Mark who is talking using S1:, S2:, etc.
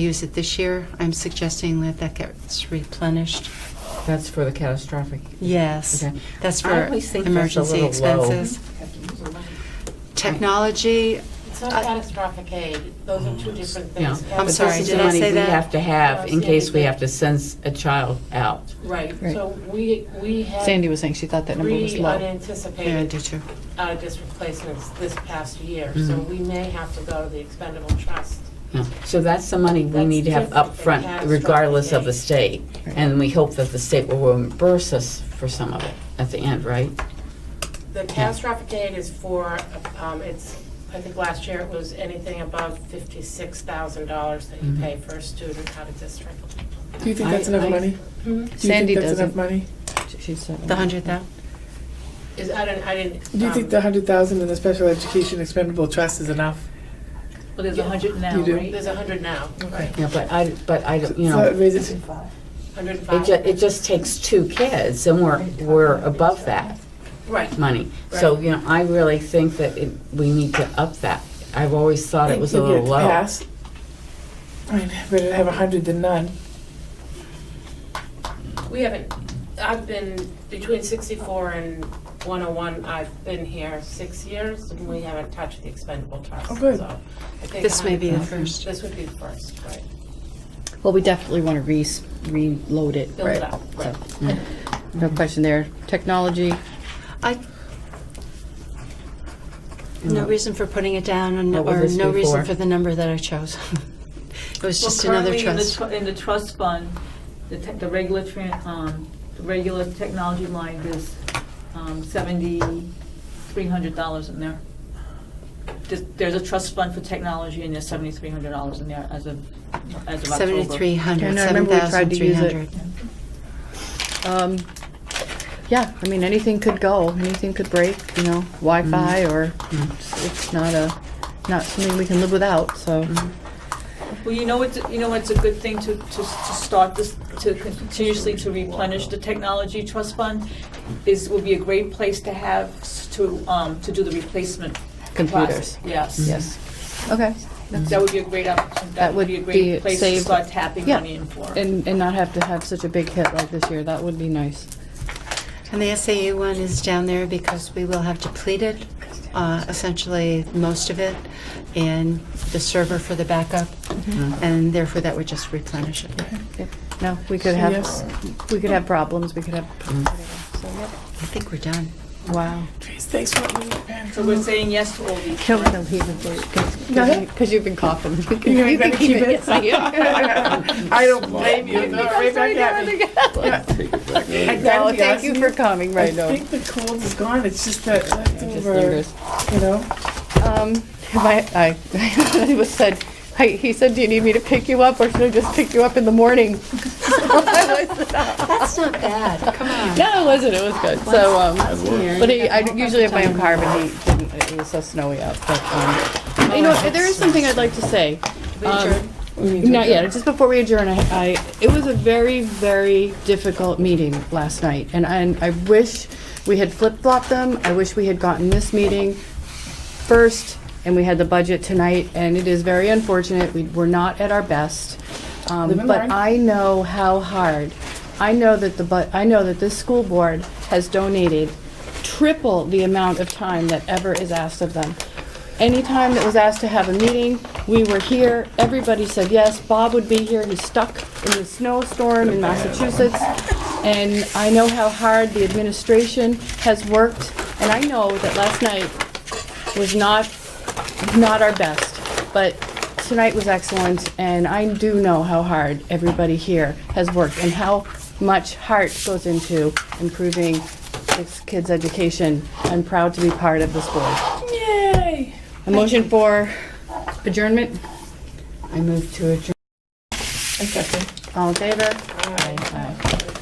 S1: use it this year. I'm suggesting that that gets replenished.
S2: That's for the catastrophic.
S1: Yes,
S2: Okay.
S1: that's
S2: I
S1: for
S2: always think that's a
S1: emergency
S2: little low.
S1: expenses. Technology,
S3: It's not
S1: I-
S3: catastrophic aid, those are two different
S2: Yeah.
S3: things.
S1: I'm
S2: But
S1: sorry,
S2: This is
S1: did
S2: the
S1: I
S2: money
S1: say
S2: we
S1: that?
S2: have to have in
S3: No,
S2: case we
S3: Sandy.
S2: have to send a child out.
S3: Right,
S4: Right.
S3: so we, we had.
S4: Sandy was saying she thought that number was
S3: Three
S4: low.
S1: yeah, I do
S3: unanticipated
S1: too.
S3: out-of-district placements this past year,
S1: Mm-hmm.
S3: so
S2: Mhm.
S3: we may have to go to the expendable trust.
S2: Yeah. So that's the money we
S3: That's
S2: need to have
S3: different than
S2: upfront
S3: catastrophic
S2: regardless of
S3: aid.
S2: the state.
S4: Right.
S2: And we hope that the state will reimburse us for some of it at the end, right?
S3: The catastrophic aid is for, um, it's, I think last year it was anything above fifty-six thousand dollars that you
S1: Mm-hmm.
S2: Mhm.
S3: pay for a student out of district.
S5: Do you think
S2: I-
S5: that's enough
S2: I-
S5: money? Do you
S4: Sandy
S5: think that's
S4: doesn't.
S5: enough money?
S4: She said.
S1: The hundred thousand?
S3: Is, I didn't, I didn't.
S5: Do you
S3: um,
S5: think the hundred thousand in the special education expendable trust is enough?
S6: Well, there's a hundred now,
S5: You do?
S6: right?
S3: There's a hundred now, right?
S2: Yeah, but I, but I, don't- you
S5: So
S2: know,
S5: raise it to-
S3: Hundred and
S2: it
S3: five?
S2: ju, it just takes two kids and we're, we're above that
S3: Right.
S2: money. So, you know, I really think that it, we need to up that. I've always thought it was a
S5: Maybe
S2: little low.
S5: pass. I mean, better have a hundred than none.
S3: We haven't, I've been between 64 and 101, I've been here six years, and we haven't touched the expendable trust.
S5: Oh, good.
S3: so I think
S1: This may be the
S3: 100
S1: first.
S3: This would be the first, right.
S4: Well, we definitely want to re, reload it.
S3: Build it up, right.
S4: So, No question there. Technology,
S1: I, no reason for putting it down, and
S2: What was
S1: or
S2: this
S1: no reason
S2: before?
S1: for the number that I chose. It was
S6: Well,
S1: just another
S6: currently in the
S1: trust.
S6: tru- In the trust fund, the te- the regular, tran- um, the regular technology line is um, seventy-three hundred dollars in there. There's- There's a trust fund for technology and there's seventy-three hundred dollars in there as of, as of October.
S1: Seventy-three hundred,
S4: And I remember we tried to use it.
S1: 7,300.
S4: um, yeah, I mean, anything could go, anything could break, you know, Wi-Fi or it's it's not a, not something we can live without, so.
S6: Well, you know what's you know what's a good thing to, to, to start this, to continuously to replenish the technology trust fund is, would be a great place to have s- to, um, to do the replacement.
S4: Computers.
S6: process. Yes.
S4: Yes. Okay.
S6: That would be a great, op- that would be a
S4: be
S6: great place to
S4: saved-
S6: start tapping
S4: yeah.
S6: money in for.
S4: And, and not have to have such a big hit like this year. That would be nice.
S1: And the SAU one is down there because we will have depleted uh, essentially most of it and the server for the backup, and therefore that would just replenish it.
S4: No, we could
S5: So
S4: have,
S5: yes.
S4: we could have problems. We could have.
S1: I think we're done.
S4: Mm-hmm. Wow.
S5: Geez, thanks for letting me look back.
S6: So we're saying yes to all these.
S4: Kill
S6: correct?
S4: them even
S5: Go ahead.
S4: because you've been coughing. You can,
S5: You gonna keep it?
S4: Yes, I am.
S5: I don't blame you, no, right back at me. I gotta
S4: no,
S5: be
S4: thank
S5: honest
S4: you
S5: with
S4: for coming.
S5: I
S4: Right now.
S5: think the cold is gone, it's just that
S4: Just
S5: leftover,
S4: lingers.
S5: you know?
S4: Um, my, I, it was said. I, he said, "Do you need me to pick you up, or should I just pick you up in the morning?" I was-
S1: That's not bad. Come on.
S4: no, it wasn't. It was good. So, um, but he, I usually have my own
S1: time.
S4: car, but he didn't. It was so snowy out. But um, you know, what, there is something I'd like to say. Um, Not yet. Just before we adjourn, I, I, it was a very, very difficult meeting last night, and I, and I wish we had flip-flopped them. I wish we had gotten this meeting first, and we had the budget tonight, and it is very unfortunate. We were not at our best. Um,
S5: Live and
S4: but
S5: learn.
S4: I know how hard. I know that the, bu- I know that this school board has donated triple the amount of time that ever is asked of them. Any time that was asked to have a meeting, we were here, everybody said yes, Bob would be here, he's stuck in the snowstorm in Massachusetts. And I know how hard the administration has worked, and I know that last night was not not our best, but tonight was excellent, and I do know how hard everybody here has worked and how much heart goes into improving this kid's education. I'm proud to be part of this board.
S5: Yay!
S4: A motion for adjournment?
S2: I move to adjourn.
S5: I second.
S4: All in favor?